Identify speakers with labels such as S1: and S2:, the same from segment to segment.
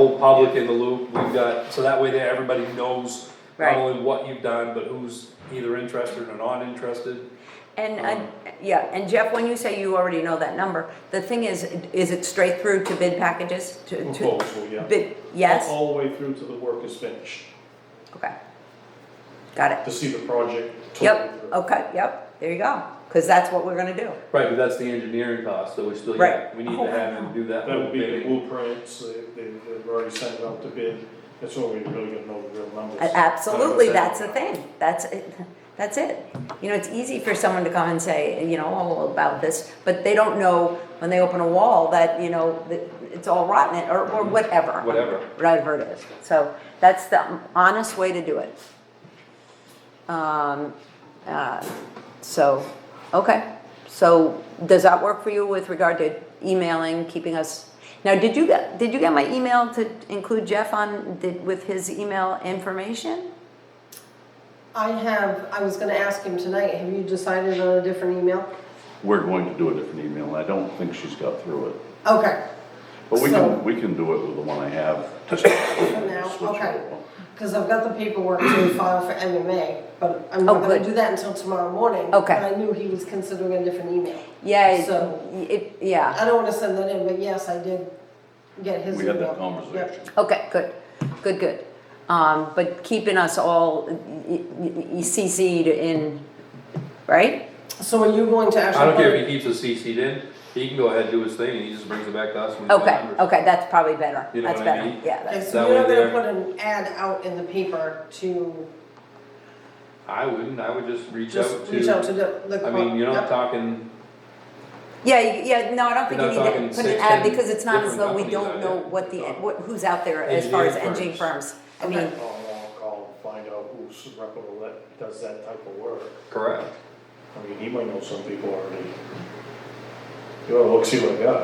S1: whole public in the loop, we've got, so that way there, everybody knows not
S2: Right.
S1: only what you've done, but who's either interested or not interested.
S2: And, uh, yeah, and Jeff, when you say you already know that number, the thing is, is it straight through to bid packages? To to
S3: Proposal, yeah.
S2: Bid, yes?
S3: All the way through to the work is finished,
S2: Okay. Got it.
S3: to see the project. totally
S2: Yep,
S3: through.
S2: okay, yep, there you go. Because that's what we're gonna do.
S1: Right, but that's the engineering cost that we still,
S2: Right.
S1: we need
S2: Oh,
S1: to have him do that.
S3: That would be the
S1: bidding.
S3: blueprints, they, they- they've already sent it out to bid, that's where we really gonna know the real numbers.
S2: A- Absolutely,
S3: 100%.
S2: that's the thing, that's, it. that's it. You know, it's easy for someone to come and say, you know, oh, about this, but they don't know when they open a wall that, you know, that it's all rotten, or, or whatever.
S1: Whatever.
S2: Whatever it is, so that's the honest way to do it. Um, uh, so, okay, so does that work for you with regard to emailing, keeping us? Now, did you get, did you get my email to include Jeff on, did, with his email information?
S4: I have, I was gonna ask him tonight, have you decided on a different email?
S5: We're going to do a different email, and I don't think she's got through it.
S4: Okay,
S5: But we
S4: So-
S5: can, we can do it with the one I have, just.
S4: now,
S5: switch it
S4: okay.
S5: over.
S4: cause I've got the paperwork to file for MMA, but I'm not
S2: Oh,
S4: gonna
S2: good.
S4: do that until tomorrow morning.
S2: Okay.
S4: But I knew he was considering a different email.
S2: Yeah, it-
S4: So-
S2: it, yeah,
S4: I don't wanna send that in, but yes, I did get his
S5: We
S4: email.
S5: had that
S4: Yep.
S5: conversation.
S2: okay, good, good, good. Um, but keeping us all e, y- y- y- CC'd in, right?
S4: So are you going to actually?
S1: I don't care if he keeps us CC'd in, he can go ahead and do his thing, and he just brings it back to us. when he's
S2: Okay,
S1: done, or-
S2: okay, that's probably better,
S1: You know
S2: that's
S1: what I
S2: better,
S1: mean?
S2: yeah,
S4: Okay,
S2: that's,
S4: so
S1: That
S4: you're not
S1: way
S4: gonna put
S1: there-
S4: an ad out in the paper to
S1: I wouldn't, I would just reach out
S4: just
S1: to.
S4: reach out to the. the
S1: I mean, you're
S4: Yep.
S1: not talking,
S2: yeah, you- yeah, no, I don't think you
S1: You're not
S2: need
S1: talking
S2: to put an
S1: six,
S2: ad,
S1: ten
S2: because it's not as
S1: different
S2: though we
S1: companies
S2: don't
S1: out
S2: know
S1: there.
S2: what the, what, who's out there as far as
S1: Engineering
S2: engine firms. I
S4: Okay.
S2: mean,
S3: I'll, I'll call and find out who's reputable that does that type of work.
S1: correct.
S3: I mean, he might know some people already. You wanna look, see what I got.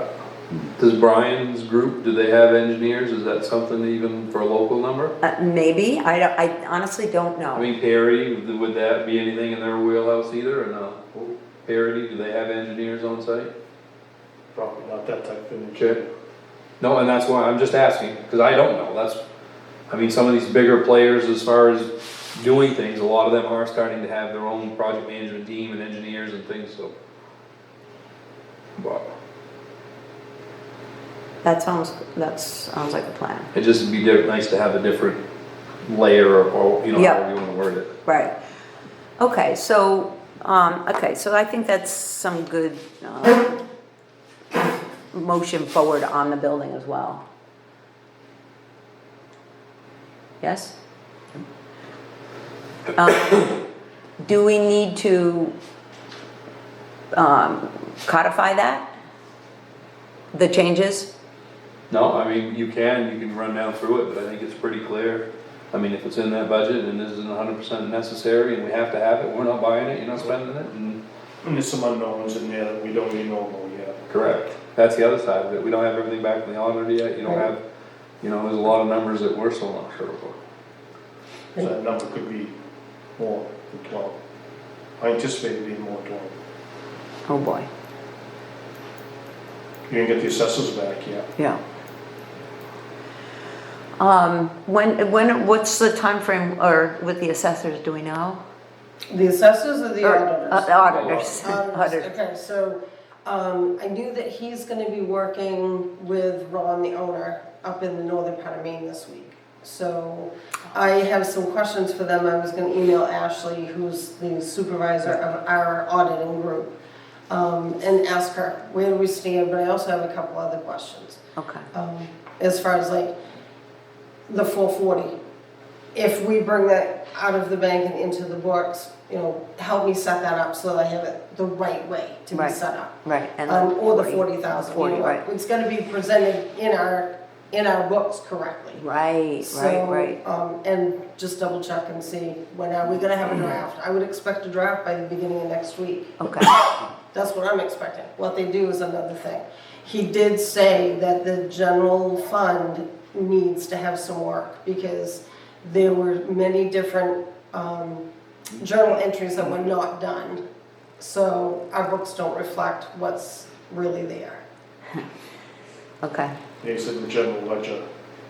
S1: Does Brian's group, do they have engineers? Is that something even for a local number?
S2: uh, maybe, I don't, I honestly don't
S1: I
S2: know.
S1: mean, Perry, would that be anything in their wheelhouse either, or no? Parity, do they have engineers on site?
S3: Probably not that type of
S1: Okay.
S3: engineer.
S1: No, and that's why I'm just asking, because I don't know, that's, I mean, some of these bigger players as far as doing things, a lot of them are starting to have their own project management team and engineers and things, so. But
S2: That sounds, that sounds like a plan.
S1: it just would be diff- nice to have a different layer of, or, you know,
S2: Yeah.
S1: however you wanna word it.
S2: Right. Okay, so, um, okay, so I think that's some good, uh, motion forward on the building as well. Yes? Um, Do we need to, um, codify that? The changes?
S1: No, I mean, you can, you can run down through it, but I think it's pretty clear. I mean, if it's in that budget and this isn't hundred percent necessary and we have to have it, we're not buying it, you're not spending it, and
S3: And there's some unknowns in there that we don't even know about yet.
S1: Correct. That's the other side of it. We don't have everything back from the auditor yet. You don't have, you know, there's a lot of numbers that we're still not sure about.
S3: So that number could be more than twelve. I anticipate it being more than twelve.
S2: Oh, boy.
S3: You didn't get the assessors back yet.
S2: Yeah. Um, when, when, what's the time frame? or with the assessors, do we know?
S4: The assessors or the
S2: Or,
S4: auditors?
S2: uh, Auditors,
S4: Um,
S2: auditors,
S4: Okay, so, um, I knew that he's gonna be working with Ron, the owner, up in the northern part of Maine this week. So I have some questions for them, I was gonna email Ashley, who's the supervisor of our auditing group, um, and ask her where do we stand, but I also have a couple other questions
S2: okay.
S4: um, as far as like the four forty. If we bring that out of the bank and into the books, you know, help me set that up so that I have it the right way to be
S2: Right.
S4: set up.
S2: Right, and
S4: Um, or the
S2: 40,
S4: forty thousand, you
S2: 40,
S4: know,
S2: right.
S4: it's gonna be presented in our, in our books correctly.
S2: Right, right, right.
S4: So, um, and just double check and see when are we gonna have
S2: Mm.
S4: a draft, I would expect a draft by the beginning of next week.
S2: Okay,
S4: That's what I'm expecting. What they do is another thing. He did say that the general fund needs to have some work because there were many different um, journal entries that were not done. So our books don't reflect what's really there.
S2: okay,
S3: They said the general ledger